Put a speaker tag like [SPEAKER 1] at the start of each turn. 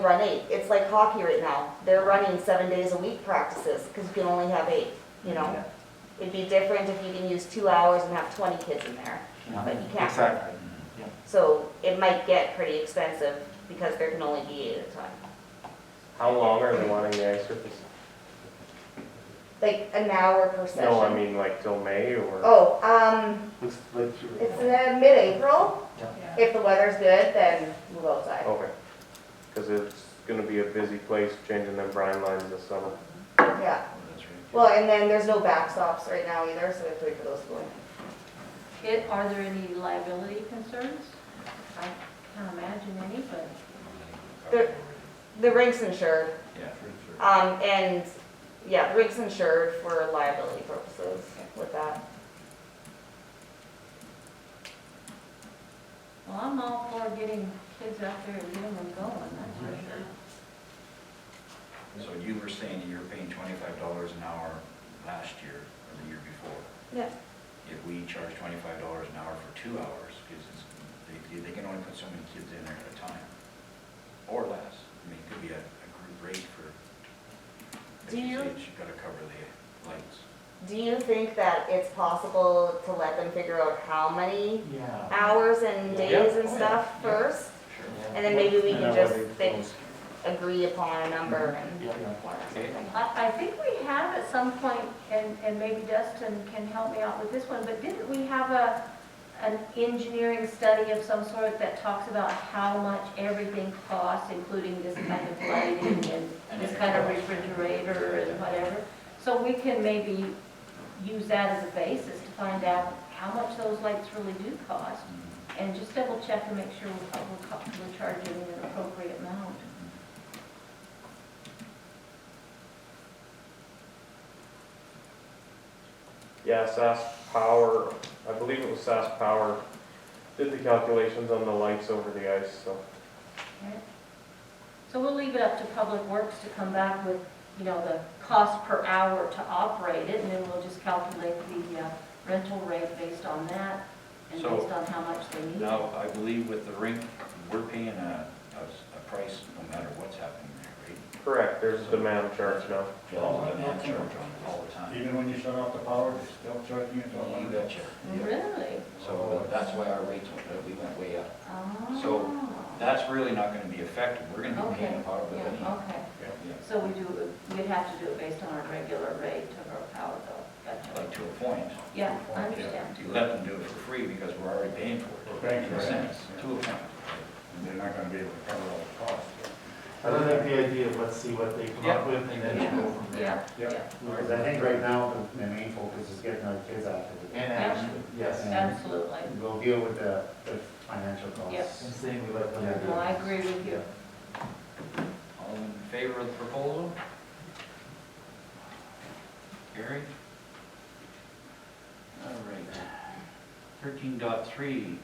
[SPEAKER 1] run eight. It's like hockey right now. They're running seven days a week practices because you can only have eight, you know? It'd be different if you can use two hours and have twenty kids in there, but you can't.
[SPEAKER 2] Exactly. Yeah.
[SPEAKER 1] So it might get pretty expensive because there can only be eight at a time.
[SPEAKER 3] How long are they wanting the ice surface?
[SPEAKER 1] Like an hour per session.
[SPEAKER 3] No, I mean like till May or?
[SPEAKER 1] Oh, um,
[SPEAKER 2] Let's, let's.
[SPEAKER 1] it's uh, mid-April.
[SPEAKER 4] Yeah.
[SPEAKER 1] If the weather's good, then move outside.
[SPEAKER 3] Okay. Because it's gonna be a busy place changing them brine lines this summer.
[SPEAKER 1] Yeah. Well, and then there's no backstops right now either, so we have to wait for those to go in.
[SPEAKER 4] It, are there any liability concerns? I can't imagine any, but
[SPEAKER 1] The, the rink's insured. Um, and, yeah, the rig's insured for liability purposes with that.
[SPEAKER 4] well, I'm all for getting kids out there and getting them going, that's for sure.
[SPEAKER 5] So you were saying you were paying twenty-five dollars an hour last year or the year before.
[SPEAKER 1] Yeah.
[SPEAKER 5] If we charge twenty-five dollars an hour for two hours, because it's, they, they can only put so many kids in there at a time, or less. I mean, it could be a, a group rate for, like
[SPEAKER 1] Do
[SPEAKER 5] you
[SPEAKER 1] you-
[SPEAKER 5] said, you gotta cover the lights.
[SPEAKER 1] Do you think that it's possible to let them figure out how many
[SPEAKER 2] Yeah.
[SPEAKER 1] hours and days and
[SPEAKER 5] Yeah.
[SPEAKER 1] stuff
[SPEAKER 5] Yeah.
[SPEAKER 1] first? And then maybe we can just think, agree upon a number and.
[SPEAKER 2] Yeah, yeah.
[SPEAKER 1] or something.
[SPEAKER 4] I, I think we have at some point, and, and maybe Dustin can help me out with this one, but didn't we have a, an engineering study of some sort that talks about how much everything costs, including this kind of lighting and this kind of refrigerator and whatever? So we can maybe use that as a basis to find out how much those lights really do cost,
[SPEAKER 5] Mm-hmm.
[SPEAKER 4] and just double check and make sure we're, we're co- we're charging an appropriate amount.
[SPEAKER 3] Yeah, SAS Power, I believe it was SAS Power, did the calculations on the lights over the ice, so.
[SPEAKER 4] Right. So we'll leave it up to Public Works to come back with, you know, the cost per hour to operate it, and then we'll just calculate the uh, rental rate based on that, and
[SPEAKER 5] So-
[SPEAKER 4] based on how much they need.
[SPEAKER 5] Now, I believe with the rink, we're paying a, a, s- a price no matter what's happening there, right?
[SPEAKER 3] Correct, there's a demand charge now.
[SPEAKER 5] Well, I'm not charged on it all the time.
[SPEAKER 6] Even when you shut off the power, they're still charging you till
[SPEAKER 5] You
[SPEAKER 6] one
[SPEAKER 5] betcha.
[SPEAKER 4] Really?
[SPEAKER 5] So that's why our rates went, up. we went way up.
[SPEAKER 4] Oh.
[SPEAKER 5] So- That's really not gonna be effective, we're gonna be paying a
[SPEAKER 4] Okay,
[SPEAKER 5] power bill
[SPEAKER 4] yeah,
[SPEAKER 5] anyway.
[SPEAKER 4] okay.
[SPEAKER 5] Yeah,
[SPEAKER 4] So we do, we'd have to do it based on our regular rate of our power bill. Gotcha.
[SPEAKER 5] Like to a point.
[SPEAKER 4] Yeah,
[SPEAKER 5] To a
[SPEAKER 4] I
[SPEAKER 5] point, yeah.
[SPEAKER 4] understand.
[SPEAKER 5] You let them do it for free because we're already paying for it.
[SPEAKER 6] Right,
[SPEAKER 5] In a
[SPEAKER 6] right.
[SPEAKER 5] sense, to a point.
[SPEAKER 6] and they're not gonna be able to cover all the costs.
[SPEAKER 2] I don't like the idea of let's see what they come up with and then go from there.
[SPEAKER 4] Yeah, yeah,
[SPEAKER 7] Because I think right now, the- the main focus is getting our kids out of it.
[SPEAKER 2] And actually, yes,
[SPEAKER 4] absolutely.
[SPEAKER 7] We'll deal with the, the financial costs.
[SPEAKER 2] and saying we let them. do
[SPEAKER 4] No, I
[SPEAKER 2] it.
[SPEAKER 4] agree with you.
[SPEAKER 5] All in favor of the proposal? Gary? All right. Thirteen dot three,